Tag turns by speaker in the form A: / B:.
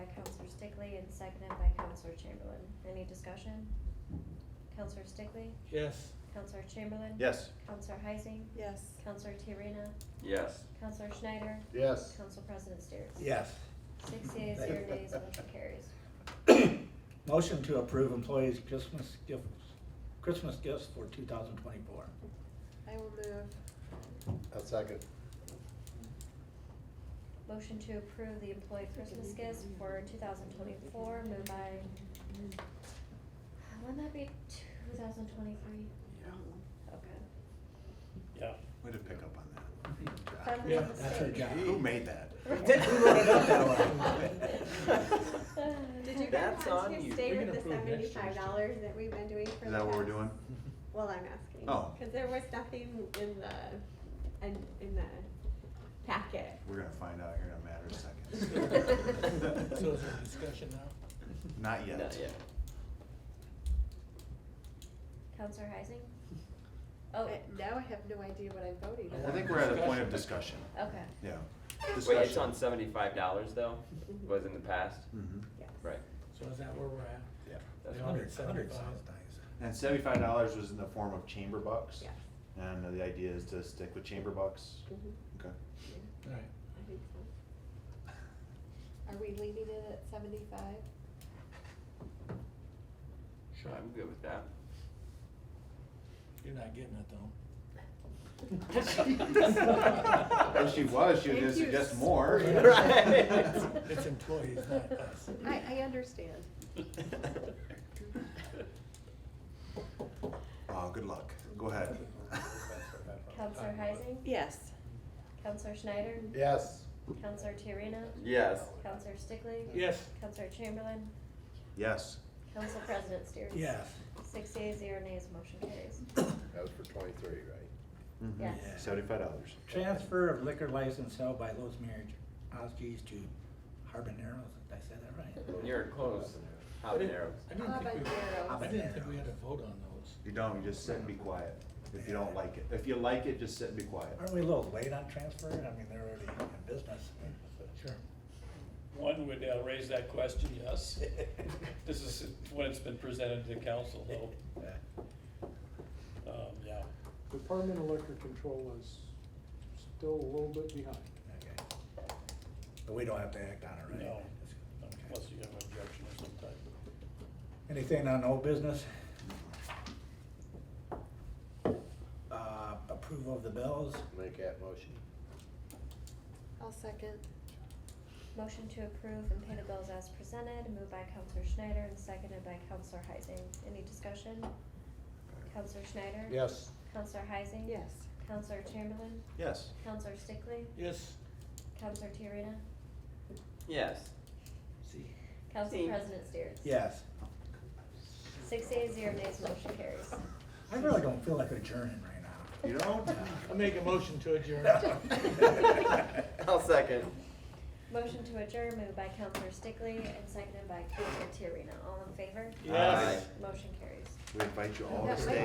A: Stickley and seconded by Counselor Chamberlain. Any discussion? Counselor Stickley?
B: Yes.
A: Counselor Chamberlain?
C: Yes.
A: Counselor Heising?
D: Yes.
A: Counselor Tiarena?
E: Yes.
A: Counselor Schneider?
C: Yes.
A: Council President Steers?
B: Yes.
A: Six yeas, zero nays, motion carries.
B: Motion to approve employees' Christmas gifts, Christmas gifts for two thousand twenty-four.
D: I will move.
C: I'll second.
A: Motion to approve the employee Christmas gifts for two thousand twenty-four, moved by, wouldn't that be two thousand twenty-three?
C: Yeah.
A: Okay.
B: Yeah.
C: Way to pick up on that. Good
A: From
C: job.
B: Yeah, that's her
A: mistake.
B: job.
C: Who made that?
A: Right.
B: Who wrote it up
C: that way?
D: Did you guys
E: That's on
D: want
E: you.
D: to stay
B: We
D: with
B: can
D: the
B: approve next year's
D: seventy-five dollars that we've been doing for
C: Is
D: the
C: that what we're
D: past-
C: doing?
D: Well, I'm asking.
C: Oh.
D: Cause there was nothing in the, in, in the packet.
C: We're gonna find out here in a matter of
D: So
C: seconds.
B: discussion now?
C: Not yet.
E: Not yet.
A: Counselor Heising? Oh,
D: I- Now I have no idea what I'm voting on.
C: I think we're at a point of discussion,
A: okay.
C: yeah.
E: Wait, it's on
C: Discussion.
E: seventy-five dollars though,
D: Mhm.
E: was in the past,
C: Mhm.
D: Yes.
E: right?
F: So is that where we're at?
C: Yeah.
E: That's
F: The
E: fine.
F: hundred seventy-five?
C: And seventy-five dollars was in the form of chamber bucks?
D: Yes.
C: And the idea is to stick with chamber bucks?
D: Mhm.
B: Mm-hmm.
C: Okay.
D: Yeah,
F: Right.
D: I think so. Are we leaving it at seventy-five?
F: Sure.
E: I'm good with that.
F: You're not getting it though.
C: If she was, she was gonna
D: Thank you.
C: suggest more.
E: Right.
F: It's employees, not us.
D: I, I understand.
C: Oh, good luck. Go ahead.
A: Counselor Heising?
D: Yes.
A: Counselor Schneider?
C: Yes.
A: Counselor Tiarena?
E: Yes.
A: Counselor Stickley?
B: Yes.
A: Counselor Chamberlain?
C: Yes.
A: Council President Steers?
B: Yes.
A: Six yeas, zero nays, motion carries.
G: That was for twenty-three, right?
A: Yes.
B: Yeah.
C: Mm-hmm. Seventy-five dollars.
B: Transfer of liquor license held by Lowe's Marriage Oskies to Harboneros, did I say that right?
E: You're close, habaneros.
F: I didn't think we, I
B: Habanero.
F: didn't think we had to vote on those.
C: You don't, you just sit and be quiet. If you don't like it. If you like it, just sit and be quiet.
B: Aren't we a little late on transferring? I mean, they're already in business.
F: Sure.
H: One would uh, raise that question, yes. This is when it's been presented to council, though, um, yeah.
I: Department of Liquor Control is still a little bit behind.
B: Okay. But we don't have to act on it, right?
H: No.
B: Okay.
H: Unless you have an objection of some type.
B: Anything on old business? Uh, approval of the bills?
G: Make that motion.
D: I'll second.
A: Motion to approve and pay the bills as presented, moved by Counselor Schneider and seconded by Counselor Heising. Any discussion? Counselor Schneider?
G: Yes.
A: Counselor Heising?
D: Yes.
A: Counselor Chamberlain?
C: Yes.
A: Counselor Stickley?
F: Yes.
A: Counselor Tiarena?
E: Yes.
B: See.
A: Council
E: Same.
A: President Steers?
B: Yes.
A: Six yeas, zero nays, motion carries.
B: I really don't feel like adjourning right now.
C: You don't?
F: I make a motion to adjourn.
E: I'll second.
A: Motion to adjourn, moved by Counselor Stickley and seconded by Counselor Tiarena. All in favor?
F: Yes.
E: Aye.
A: Motion carries.
C: We invite you all to
D: That
C: stay.